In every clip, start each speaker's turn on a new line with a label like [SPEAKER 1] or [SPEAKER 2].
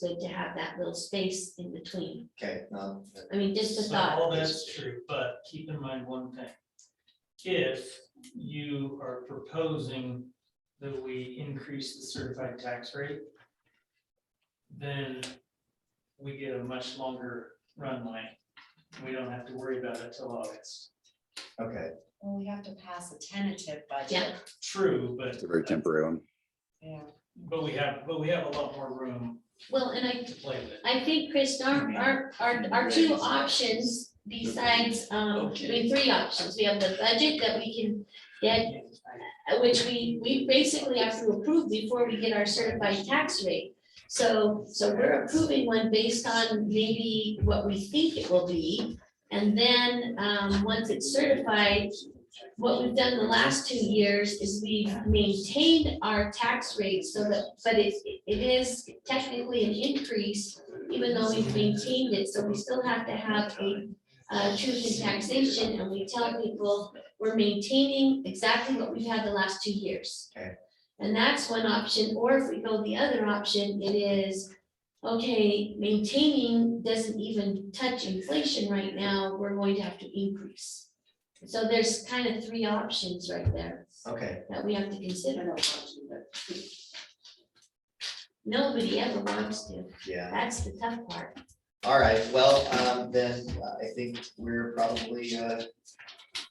[SPEAKER 1] good to have that little space in between.
[SPEAKER 2] Okay, um, no,
[SPEAKER 1] I mean, just a
[SPEAKER 3] So
[SPEAKER 1] thought.
[SPEAKER 3] all that's true, but keep in mind one thing. If you are proposing that we increase the certified tax rate, then we get a much longer runway. We don't have to worry about it till August.
[SPEAKER 2] okay,
[SPEAKER 4] Well, we have to pass a tentative budget.
[SPEAKER 1] Yeah.
[SPEAKER 3] True, but, uh,
[SPEAKER 5] It's a very temporary one.
[SPEAKER 4] Yeah.
[SPEAKER 3] but we have, but we have a lot more room
[SPEAKER 1] Well, and I,
[SPEAKER 3] to play with.
[SPEAKER 1] I think, Chris, our, our, our, our two options besides, um, I mean, three options. We have the budget that we can get, uh, which we, we basically have to approve before we get our certified tax rate. So, so we're approving one based on maybe what we think it will be. And then, um, once it's certified, what we've done the last two years is we've maintained our tax rate so that, but it, it is technically an increase, even though we've maintained it, so we still have to have a, uh, truth in taxation, and we tell people, we're maintaining exactly what we've had the last two years.
[SPEAKER 2] Okay.
[SPEAKER 1] And that's one option, or if we go the other option, it is, okay, maintaining doesn't even touch inflation right now, we're going to have to increase. So there's kind of three options right there
[SPEAKER 2] okay,
[SPEAKER 1] that we have to consider. Nobody ever wants to,
[SPEAKER 2] yeah.
[SPEAKER 1] that's the tough part.
[SPEAKER 2] All right, well, um, then uh, I think we're probably, uh,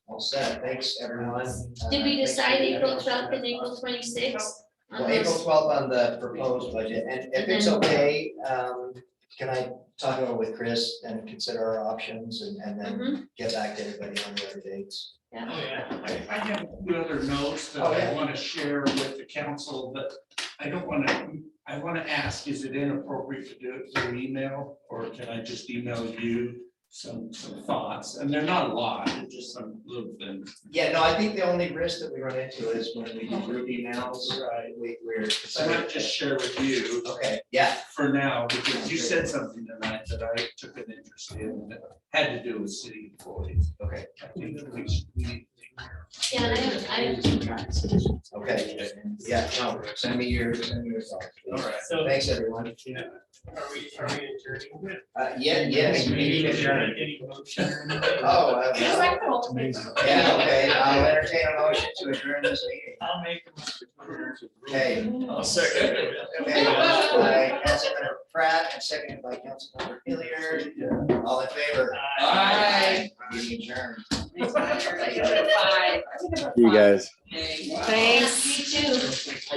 [SPEAKER 2] all set. Thanks, everyone. Uh,
[SPEAKER 1] Did we
[SPEAKER 2] thanks for
[SPEAKER 1] decide
[SPEAKER 2] the-
[SPEAKER 1] April twelfth and April twenty-sixth?
[SPEAKER 2] Well, April twelfth on the proposed budget, and if
[SPEAKER 1] And
[SPEAKER 2] it's
[SPEAKER 1] then-
[SPEAKER 2] okay, um, can I talk over with Chris and consider our options and, and then
[SPEAKER 1] Mm-hmm.
[SPEAKER 2] get back to everybody on the other dates?
[SPEAKER 3] Oh, yeah.
[SPEAKER 6] I, I have two other notes that
[SPEAKER 2] Oh, yeah.
[SPEAKER 6] I want to share with the council, but I don't want to, I want to ask, is it inappropriate to do it through email? Or can I just email you some, some thoughts? And they're not a lot, they're just some little things.
[SPEAKER 2] Yeah, no, I think the only risk that we run into is when we
[SPEAKER 1] Oh.
[SPEAKER 2] do group emails,
[SPEAKER 6] Right.
[SPEAKER 2] we, we're.
[SPEAKER 6] So I might just share with you
[SPEAKER 2] Okay, yeah,
[SPEAKER 6] for now, because you said something tonight that I took an interest in, that had to do with city employees.
[SPEAKER 2] okay,
[SPEAKER 6] I think that we should- we need to take care of
[SPEAKER 1] Yeah, and I have, I have two thoughts.
[SPEAKER 2] okay, yeah, no, send me your, send me your thoughts.
[SPEAKER 6] it.
[SPEAKER 2] please.
[SPEAKER 6] All right.
[SPEAKER 3] So,
[SPEAKER 2] Thanks, everyone.
[SPEAKER 3] are we, are we adjourning?
[SPEAKER 2] Uh, yeah, yes, we need to adjourn.
[SPEAKER 3] Any motion or anything?
[SPEAKER 2] Oh, uh,
[SPEAKER 4] Feels like the whole thing.
[SPEAKER 2] yeah, okay, I'll entertain a motion to adjourn this meeting.
[SPEAKER 3] I'll make a motion.
[SPEAKER 2] Okay,
[SPEAKER 3] I'll second it.
[SPEAKER 2] okay, motion by Councilmember Pratt and seconded by Councilmember Hilliard,
[SPEAKER 6] Yeah.
[SPEAKER 2] all in favor?
[SPEAKER 6] Aye.
[SPEAKER 2] Meeting adjourned.
[SPEAKER 4] Five.
[SPEAKER 5] You guys.
[SPEAKER 4] Thanks.
[SPEAKER 1] You too.